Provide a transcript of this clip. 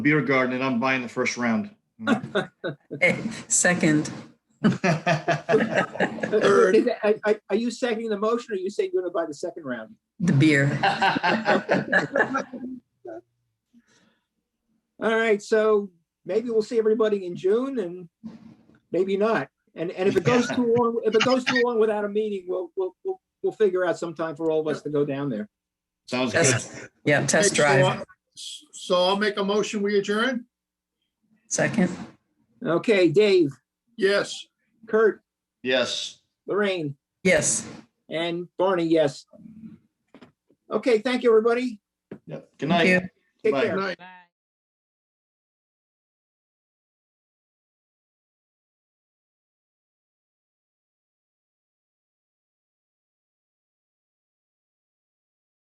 beer garden and I'm buying the first round. Okay, Second, Third. Is it- Are, are- are you seconding the motion or are you saying you're gonna buy the second round? the beer. All right, so maybe we'll see everybody in June and maybe not. And, and if it goes too long, if it goes too long without a meeting, we'll, we'll, we'll, we'll figure out some time for all of us to go down there. Sounds good. Test- Yeah, test Okay, so drive. I- So I'll make a motion, we adjourn? Second, Okay, Dave, Yes. Kurt, Yes. Lorraine, yes. and Barney, yes. Okay, thank you, everybody. Yep. Good Thank night. you. Take Bye. care. Good night. Bye.